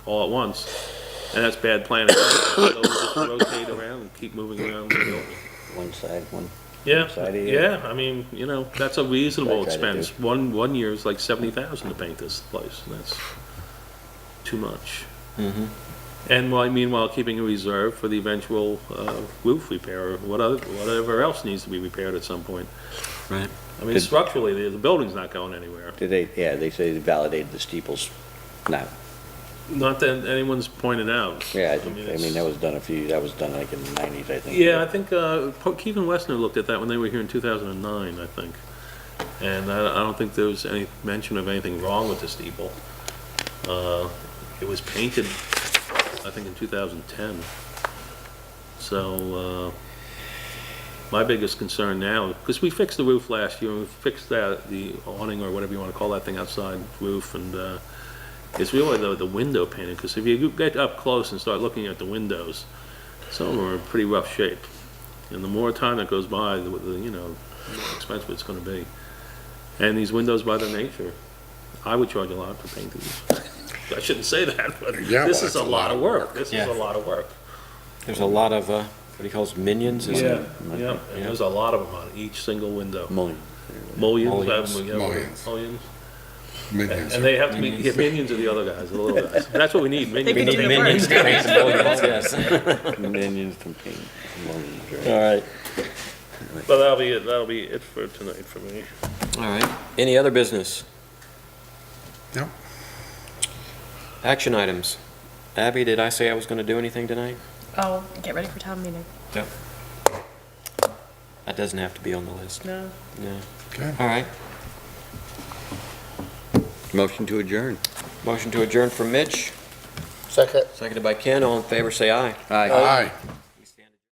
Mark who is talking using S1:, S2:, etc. S1: all at once, and that's bad planning. So we just rotate around and keep moving around the building.
S2: one side, one,
S1: Yeah,
S2: Side of you.
S1: yeah, I mean, you know, that's a reasonable
S2: I try to
S1: expense. One, one year is like seventy thousand to paint this place, and that's too much.
S2: Mm-hmm.
S1: And while, meanwhile, keeping a reserve for the eventual, uh, roof repair or whatever, whatever else needs to be repaired at some point.
S3: Right.
S1: I mean,
S2: Did-
S1: structurally, the, the building's not going anywhere.
S2: did they, yeah, they say they validated the steeples now.
S1: Not that anyone's pointed out.
S2: Yeah, I think, I
S1: it's-
S2: mean, that was done a few, that was done like in the nineties, I think.
S1: Yeah, I think, uh, Po- Keegan Westner looked at that when they were here in two thousand and nine, I think. And I, I don't think there was any mention of anything wrong with the steeple. Uh, it was painted, I think, in two thousand and ten. So, uh, my biggest concern now, because we fixed the roof last year, and we fixed that, the awning or whatever you wanna call that thing outside roof, and, uh, it's really the, the window painting, because if you get up close and start looking at the windows, some of them are in pretty rough shape. And the more time that goes by, the, the, you know, the more expensive it's gonna be. And these windows by their nature, I would charge a lot for painting these. I shouldn't say that, but
S4: Yeah,
S1: this
S4: well,
S1: is a lot of work, this is a
S3: Yeah.
S1: lot of work.
S3: There's a lot of, uh, what do you call those, minions? is it?
S1: Yeah, yeah, and there's a lot of them on each single window.
S2: Mullion.
S1: Mullions,
S3: Mullions.
S1: um, yeah,
S4: Mullions.
S1: mullions.
S4: Minions.
S1: And they have to be, yeah, minions are the other guys, the little guys. That's what we need, minions.
S3: We need minions to make some millions, yes.
S2: Minions from paint, mullions, right.
S3: All right,
S1: But that'll be it, that'll be it for tonight for me.
S3: all right. Any other business?
S4: No.
S3: Action items. Abby, did I say I was going to do anything tonight?
S5: Oh, get ready for town meeting.
S3: That doesn't have to be on the list.
S5: No.
S3: No.
S4: Okay.
S3: All right.
S2: Motion to adjourn.
S3: Motion to adjourn for Mitch,
S6: Second.
S3: seconded by Ken. All in favor, say aye.
S2: Aye.
S4: Aye.